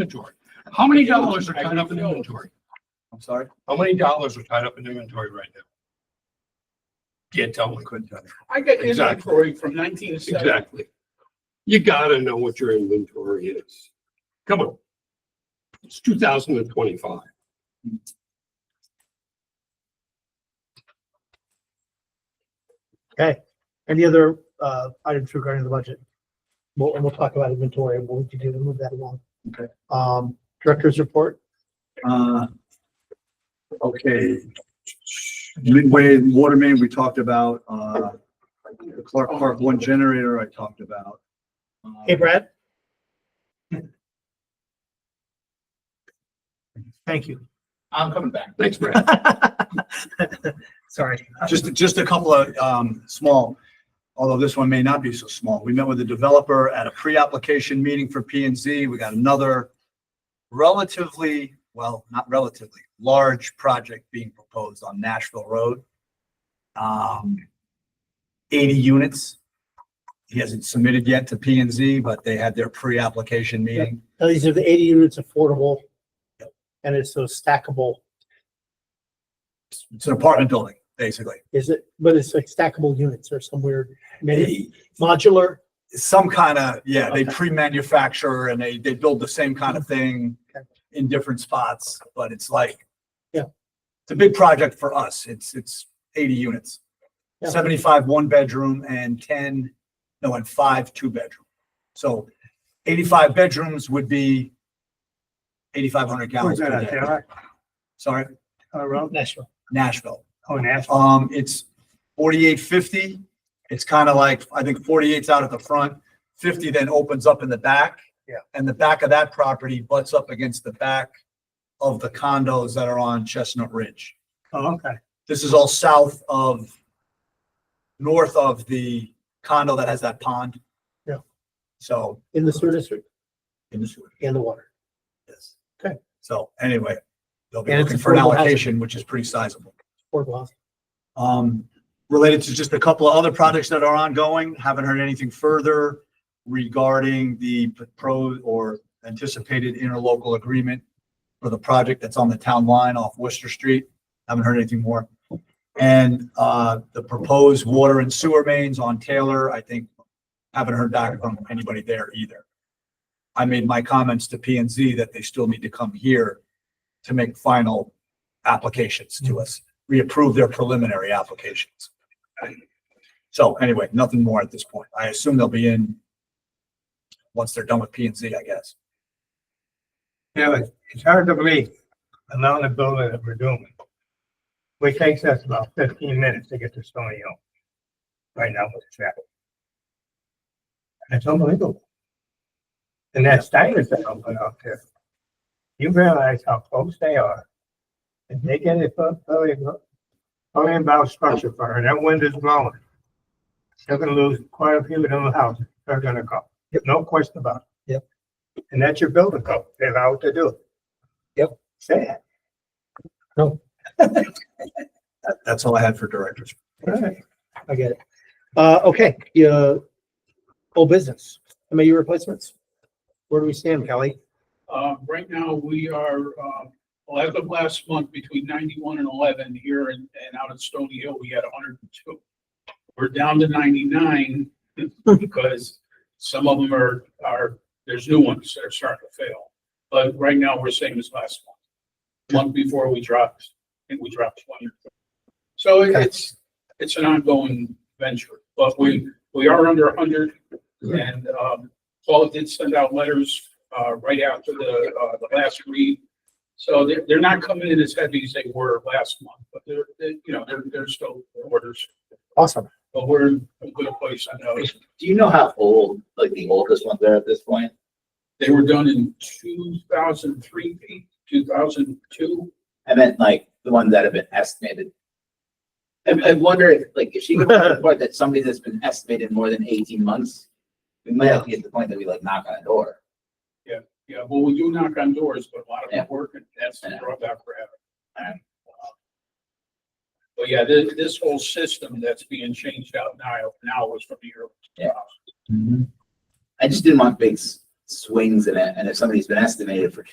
inventory. How many dollars are tied up in inventory? I'm sorry? How many dollars are tied up in inventory right now? Can't tell me. Couldn't tell you. I got Exactly. inventory from nineteen seventy. Exactly. You gotta know what your inventory is. Come on. It's two thousand and twenty-five. Any other uh items regarding the budget? Well, and we'll talk about inventory and what we can do to move that along. Okay. Um, director's report, Uh, Okay. Midway water main, we talked about, uh, the Clark Park one generator I talked about. Uh, hey Brad? Thank you. I'm coming back. Thanks, Brad. Sorry. Just, just a couple of, um, small, although this one may not be so small. We met with the developer at a pre-application meeting for P and Z. We got another relatively, well, not relatively, large project being proposed on Nashville Road. Um, eighty units. He hasn't submitted yet to P and Z, but they had their pre-application meeting. Now, These are the eighty units affordable. And it's so stackable, It's an apartment building, basically. is it, but it's like stackable units or some weird, maybe modular, some kind of, yeah, they Okay. Mm-hmm. pre-manufacture and they, they build the same kind of thing Okay. in different spots, but it's like. Yeah. It's a big project for us. It's, it's eighty units. Yeah. Seventy-five one-bedroom and ten, no, and five two-bedroom. So eighty-five bedrooms would be eighty-five hundred gallons. per day. Sorry, national. Nashville. uh, Oh, national. Um, it's forty-eight fifty. It's kind of like, I think 48's out at the front, fifty then opens up in the back. Yeah. And the back of that property butts up against the back of the condos that are on Chestnut Ridge. Oh, okay. This is all south of, north of the condo that has that pond. Yeah. So, In the sewer district in the sewer, and the water. yes. Okay. So anyway, they'll be And it's looking for an affordable housing. allocation, which is pretty sizable. affordable housing. Um, related to just a couple of other projects that are ongoing, haven't heard anything further regarding the pro or anticipated interlocal agreement for the project that's on the town line off Worcester Street. Haven't heard anything more. And, uh, the proposed water and sewer mains on Taylor, I think, haven't heard back from anybody there either. I made my comments to P and Z that they still need to come here to make final applications to us reapprove their preliminary applications. So anyway, nothing more at this point. I assume they'll be in once they're done with P and Z, I guess. Yeah, but it's hard to believe the amount of building that we're doing. Which takes us about fifteen minutes to get to Stony Hill. Right now with traffic. And It's unbelievable. And that stipend that I'm putting out there. You realize how close they are. If they get a foot, pavilion bound structure fire and that wind is blowing. They're gonna lose quite a few of them houses. They're gonna go. No question about it. And that's your building code. They're allowed to do it. Yep. Say that. That- That's all I had for directors. I get it. Uh, okay, yeah, old business, MAU replacements. Where do we stand, Kelly? Uh, right now, we are, uh, well, as of last month, between ninety-one and eleven here and, and out at Stony Hill, we had hundred and two. We're down to ninety-nine because some of them are, are, there's new ones that are starting to fail. But right now, we're same as last month. Month before we dropped, I think we dropped twenty. So Okay. it's, it's an ongoing venture, but we, we are under hundred. And, um, Paul did send out letters uh, right after the, uh, the last read. So they're, they're not coming in as heavy as they were last month, but they're, they, you know, they're, they're still orders, Awesome. but we're in a good place. I know Do you know how old, like the oldest ones are at this point? they were done in two thousand three, two thousand two. I meant like the ones that have been estimated. I, I wonder if, like, if she could put a report that somebody that's been estimated more than eighteen months, we might have to get to the point that we like knock on a door. Yeah, well, we do knock on doors, but a lot of them Yeah. work and that's the Yeah. drawback we're having. Alright. But yeah, this, this whole system that's being changed out now, now was from the year. Yeah. I just didn't want big s- swings in it, and if somebody's been estimated for